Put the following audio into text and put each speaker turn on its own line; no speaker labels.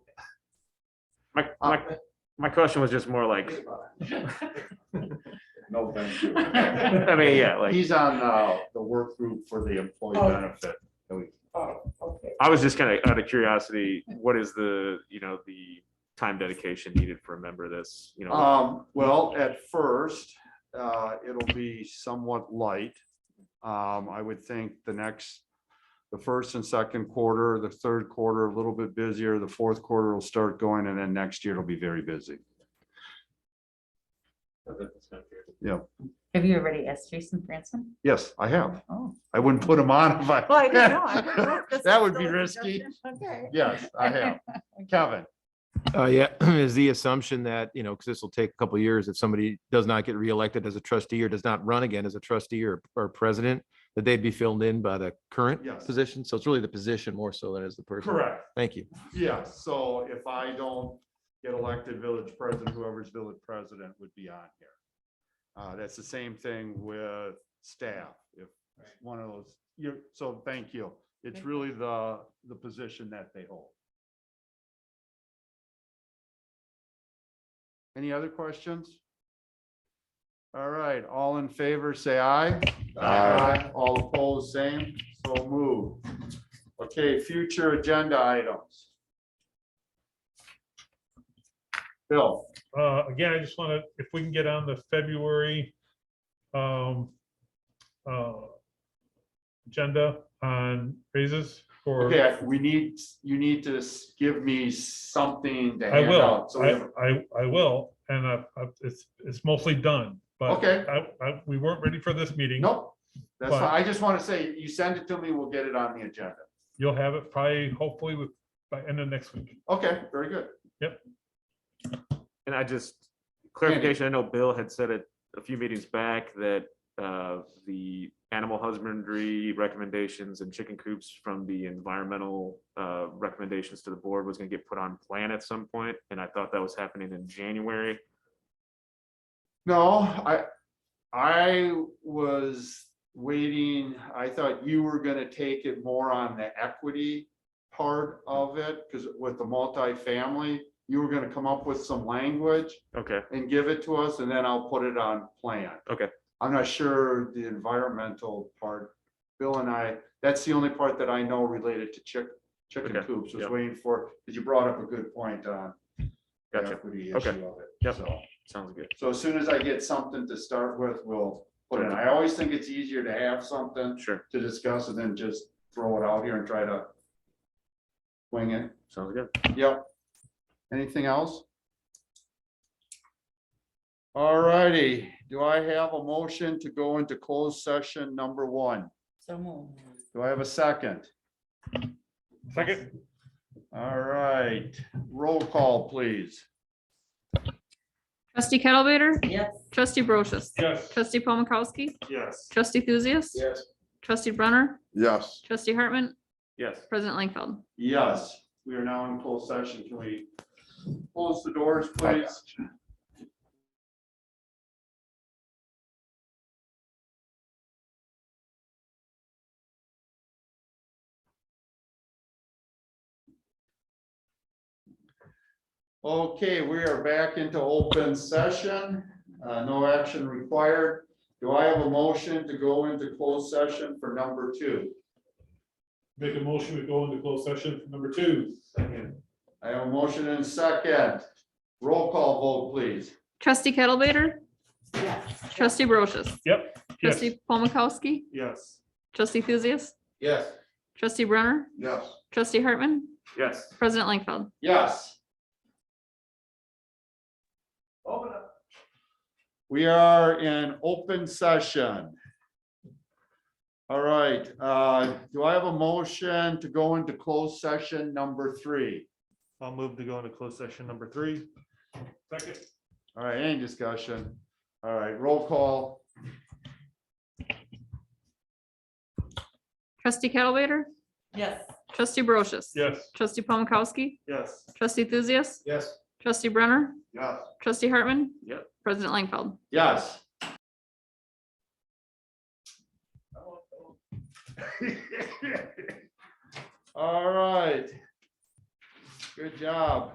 My,
Uh,
my, my question was just more like,
No, thank you.
I mean, yeah, like,
He's on uh, the work group for the employee
Oh.
benefit. that we-
Oh, okay.
I was just kind of out of curiosity, what is the, you know, the time dedication needed for a member of this, you know?
Um, Well, at first, uh, it'll be somewhat light. Um, I would think the next, the first and second quarter, the third quarter, a little bit busier, the fourth quarter will start going, and then next year it'll be very busy.
Have you already asked Jason Franson?
Yes, I have.
Oh.
I wouldn't put him on if I.
Well, I didn't know. I didn't know if this
That
was
would
still
be
a
risky.
suggestion. Okay.
Yes, I have. Kevin,
Uh, yeah, is the assumption that, you know, because this will take a couple years, if somebody does not get reelected as a trustee or does not run again as a trustee or, or president, that they'd be filled in by the current
Yes.
position. So it's really the position more so than it is the person.
correct.
Thank you.
Yeah, so if I don't get elected village president, whoever's village president would be on here. Uh, that's the same thing with staff, if one of those, you, so thank you. It's
Thank you.
really the, the position that they hold. Any other questions? All right, all in favor, say aye. Aye. All opposed, same, so move. Okay, future agenda items. Bill,
Uh, again, I just want to, if we can get on the February, um, uh, agenda on raises for,
okay, we need, you need to s- give me something to
I
hand
will,
out. so we
I,
have-
I, I will, and I, I- it's, it's mostly done, but
Okay.
I, I, we weren't ready for this meeting.
Nope, that's,
But-
fine. I just want to say, you send it to me, we'll get it on the agenda.
You'll have it probably, hopefully, with, by end of next week.
Okay, very good.
And I just, clarification, I know Bill had said it a few meetings back that, uh, the animal husbandry recommendations and chicken coops from the environmental, uh, recommendations to the board was gonna get put on plan at some point, and I thought that was happening in January.
No, I, I was waiting, I thought you were gonna take it more on the equity part of it, because with the multifamily, you were gonna come up with some language
Okay,
and give it to us, and then I'll put it on plan.
Okay.
I'm not sure the environmental part, Bill and I, that's the only part that I know related to chick, chicken
Okay,
coops, was
yeah.
waiting for, because you brought up a good point on the
Gotcha,
equity issue
okay,
of it.
yep.
so.
sounds good.
So as soon as I get something to start with, we'll put it. I always think it's easier to have something
Sure,
to discuss and then just throw it out here and try to wing it.
sounds good.
Yep. Anything else? All righty. do I have a motion to go into closed session number one?
So moved.
Do I have a second?
Second,
All right, roll call, please.
Trustee Kettlebaiter?
Yes.
Trustee Brochus?
yes.
Trustee Paul Mikowski?
Yes.
Trustee Thuzius?
Yes.
Trustee Brunner?
Yes.
Trustee Hartman?
Yes.
President Langfeld?
Yes, we are now in closed session. Can we close the doors, please? Okay, we are back into open session. Uh, No action required. Do I have a motion to go into closed session for number two?
Make a motion to go into closed session number two.
I have a motion and second. Roll call vote, please.
Trustee Kettlebaiter?
Yes.
Trustee Brochus?
Yep. Yes.
Trustee Paul Mikowski?
Yes.
Trustee Thuzius?
Yes.
Trustee Brunner?
Yes.
Trustee Hartman?
Yes.
President Langfeld?
Yes. We are in open session. All right, uh, do I have a motion to go into closed session number three?
I'll move to go into closed session number three. Second.
All right, any discussion? All right, roll call.
Trustee Kettlebaiter?
Yes.
Trustee Brochus?
Yes.
Trustee Paul Mikowski?
Yes.
Trustee Thuzius?
Yes.
Trustee Brunner?
Yes.
Trustee Hartman?
Yep.
President Langfeld?
Yes. All right. Good job.